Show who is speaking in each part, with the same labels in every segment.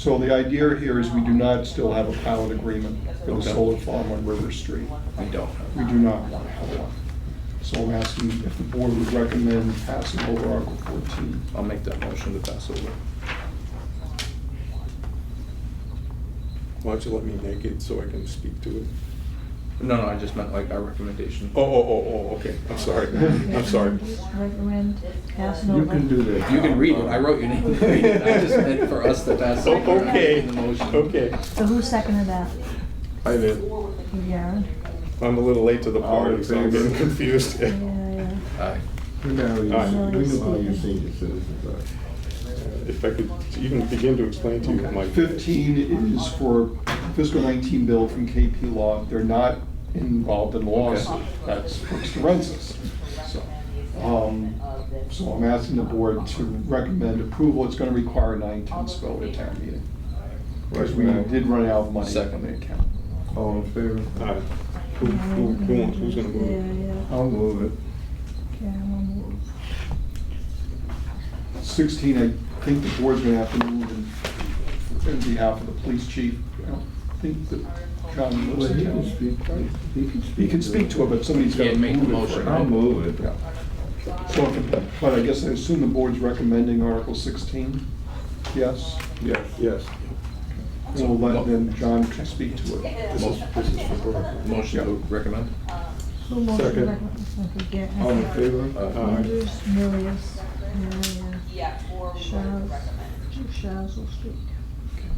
Speaker 1: So the idea here is we do not still have a pilot agreement for the
Speaker 2: Okay.
Speaker 1: solar farm on River Street.
Speaker 2: We don't have.
Speaker 1: We do not want to have one. So I'm asking if the board would recommend passing over Article 14.
Speaker 2: I'll make that motion to pass over.
Speaker 3: Why don't you let me make it so I can speak to it?
Speaker 2: No, no, I just meant like our recommendation.
Speaker 3: Oh, oh, oh, oh, okay, I'm sorry, I'm sorry.
Speaker 4: Recommend passing over.
Speaker 1: You can do that.
Speaker 2: You can read it, I wrote your name, to read it. I just meant for us to pass.
Speaker 3: Oh,
Speaker 2: over
Speaker 3: Okay,
Speaker 2: the motion.
Speaker 3: okay.
Speaker 4: So who seconded that?
Speaker 3: I did,
Speaker 4: You, Jared?
Speaker 3: I'm a little late to the
Speaker 5: All
Speaker 3: party,
Speaker 5: in
Speaker 3: so I'm
Speaker 5: favor?
Speaker 3: getting confused.
Speaker 4: Yeah, yeah.
Speaker 2: Aye.
Speaker 5: We know you-
Speaker 3: Aye.
Speaker 5: we know all your senior citizens are.
Speaker 3: If I could even begin to explain to you my.
Speaker 1: 15 is for fiscal 19 bill from KP Law. They're not involved in the lawsuit.
Speaker 2: Okay.
Speaker 1: That's Brooks Forensics. So, um, so I'm asking the board to recommend approval. It's going to require a nine-tenths vote at town meeting. Because we did run out of money in
Speaker 2: Second.
Speaker 1: the account.
Speaker 5: All in favor?
Speaker 3: Aye. Who, who, who wants, who's gonna move?
Speaker 4: Yeah, yeah.
Speaker 5: I'll move it.
Speaker 4: Okay, I will move.
Speaker 1: 16, I think the board's going to have to move in- in behalf of the police chief. I don't think that John
Speaker 5: Well,
Speaker 1: lives
Speaker 5: he
Speaker 1: in
Speaker 5: can
Speaker 1: town.
Speaker 5: speak, he can speak.
Speaker 1: He can speak to it, but somebody's got
Speaker 2: Yeah,
Speaker 1: to
Speaker 2: make the
Speaker 1: move it.
Speaker 2: motion,
Speaker 1: for him.
Speaker 5: I'll move it.
Speaker 1: Yeah. So, if- but I guess I assume the board's recommending Article 16? Yes?
Speaker 3: Yeah, yes.
Speaker 1: We'll let then John speak to it.
Speaker 3: This is, this is for Brooke.
Speaker 2: Motion to recommend?
Speaker 4: Who motioned
Speaker 3: Second.
Speaker 4: recommend- okay, get-
Speaker 5: All in favor?
Speaker 2: Aye.
Speaker 4: Andrews, Milius, yeah, yeah.
Speaker 6: Yeah, or we would
Speaker 4: Shaz,
Speaker 6: recommend.
Speaker 4: Shaz will speak.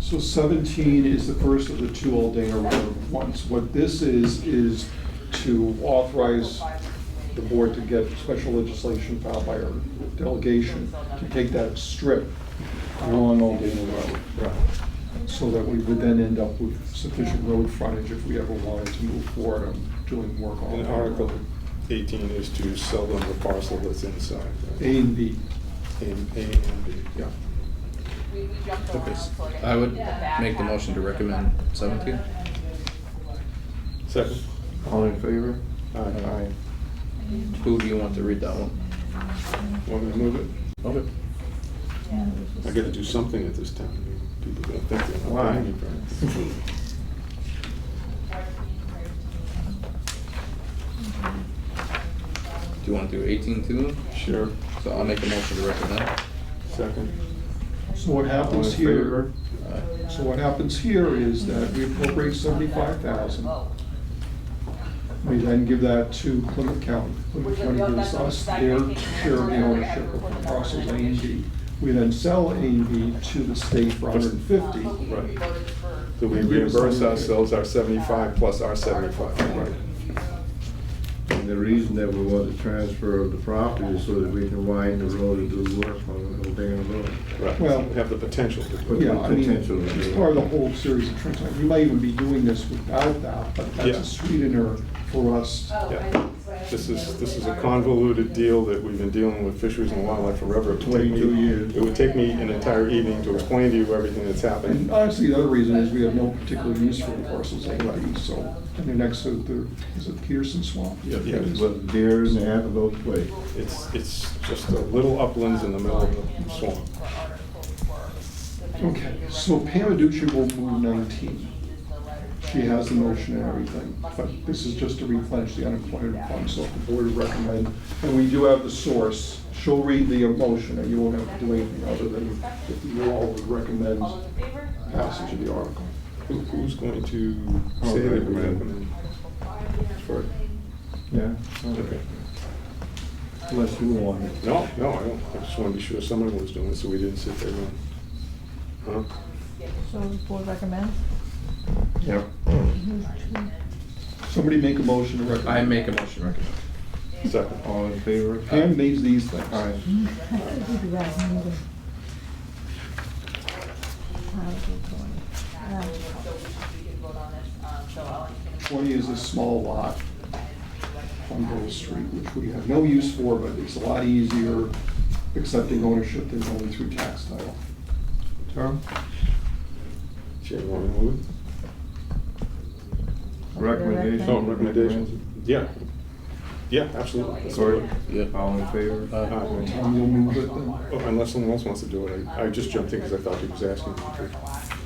Speaker 1: So 17 is the first of the two Aldana Road ones. What this is, is to authorize the board to get special legislation filed by our delegation to take that strip along Aldana Road.
Speaker 3: Right.
Speaker 1: so that we would then end up with sufficient road frontage if we ever wanted to move forward on doing work on
Speaker 3: And
Speaker 1: that.
Speaker 3: Article eighteen is to sell them the parcel that's inside.
Speaker 1: A and B.
Speaker 3: And, A and B, yeah.
Speaker 6: We, we jumped around, so I.
Speaker 2: I would
Speaker 6: think the back
Speaker 2: make the
Speaker 6: half
Speaker 2: motion to
Speaker 6: of the-
Speaker 2: recommend 17.
Speaker 3: Second?
Speaker 5: All in favor?
Speaker 3: Aye. Aye.
Speaker 2: Who do you want to read that one?
Speaker 3: Want me to move it?
Speaker 2: Okay.
Speaker 3: I gotta do something at this time. People gonna think they're not
Speaker 5: Why?
Speaker 3: paying me for it.
Speaker 2: Do you want to do 18 too?
Speaker 3: Sure.
Speaker 2: So I'll make a motion to recommend.
Speaker 3: Second?
Speaker 1: So what
Speaker 5: All in
Speaker 1: happens here, uh,
Speaker 5: favor?
Speaker 2: Aye.
Speaker 1: so what happens here is that we appropriate seventy-five thousand. We then give that to Plymouth County. Plymouth County gives us their share of the ownership of the parcels A and B. We then sell A and B to the state for hundred and
Speaker 6: Uh,
Speaker 1: fifty.
Speaker 6: but we
Speaker 3: Right.
Speaker 6: voted for-
Speaker 3: So we reimburse ourselves our seventy-five plus our seventy-five.
Speaker 6: Right.
Speaker 5: And the reason that we want the transfer of the property is so that we can widen the road and do work on the whole damn road.
Speaker 3: Right,
Speaker 1: Well-
Speaker 3: have the potential to do it.
Speaker 1: Yeah, I mean,
Speaker 5: Potential.
Speaker 1: it's part of the whole series of transactions. We might even be doing this without that, but that's
Speaker 3: Yeah.
Speaker 1: a sweetener for us.
Speaker 6: Oh.
Speaker 3: Yeah. This is, this is a convoluted deal that we've been dealing with fisheries and wildlife forever. It would take me-
Speaker 5: 22 years.
Speaker 3: It would take me an entire evening to explain to you everything that's
Speaker 1: And
Speaker 3: happened.
Speaker 1: honestly, the other reason is we have no particular use for the parcels anyway, so, and they're next to the, is it Peterson Swamp?
Speaker 3: Yeah.
Speaker 1: It
Speaker 3: Yeah.
Speaker 1: is.
Speaker 5: But deer and antelope play.
Speaker 3: It's, it's just a little uplands in the middle of the swamp.
Speaker 6: For Article four, the main
Speaker 1: Okay,
Speaker 6: thing to
Speaker 1: so Pam
Speaker 6: recommend
Speaker 1: Aducci will move nineteen.
Speaker 6: is the letter
Speaker 1: She has the motion and everything, but this is just to replenish the unemployment fund, so if the board would recommend, and we do have the source. She'll read the motion, and you won't have to do anything other than if you all would recommend
Speaker 6: All those in favor?
Speaker 1: passage of the article.
Speaker 3: Who- Who's going to
Speaker 5: I'll
Speaker 3: say that we
Speaker 5: recommend.
Speaker 3: recommend? For-
Speaker 5: Yeah.
Speaker 3: Okay.
Speaker 5: Unless you want it.
Speaker 3: No, no, I don't, I just wanted to be sure someone was doing it, so we didn't sit there going, huh?
Speaker 4: So the board recommends?
Speaker 5: Yep.
Speaker 4: Who's two?
Speaker 1: Somebody make a motion to recommend.
Speaker 2: I make a motion to recommend.
Speaker 3: Second.
Speaker 5: All in favor?
Speaker 1: Pam needs these things.
Speaker 5: Aye.
Speaker 4: We do that in the- Article twenty.
Speaker 6: So
Speaker 4: Uh,
Speaker 6: we can vote on this, um, so I'll entertain a
Speaker 1: Twenty is a small lot on Grove Street, which we have no use for, but it's a lot easier accepting ownership than going through tax title.
Speaker 5: Tom?
Speaker 3: Chair, want to move it?
Speaker 5: Recommendation?
Speaker 3: Oh, recommendations? Yeah. Yeah, absolutely. That's all
Speaker 5: Cory?
Speaker 3: right.
Speaker 2: Yeah.
Speaker 5: All in favor?
Speaker 2: Aye.
Speaker 3: Aye.
Speaker 1: Tom, you'll move it then?
Speaker 3: Oh, Unless someone else wants to do it, I I just jumped in because I thought he was asking. me to.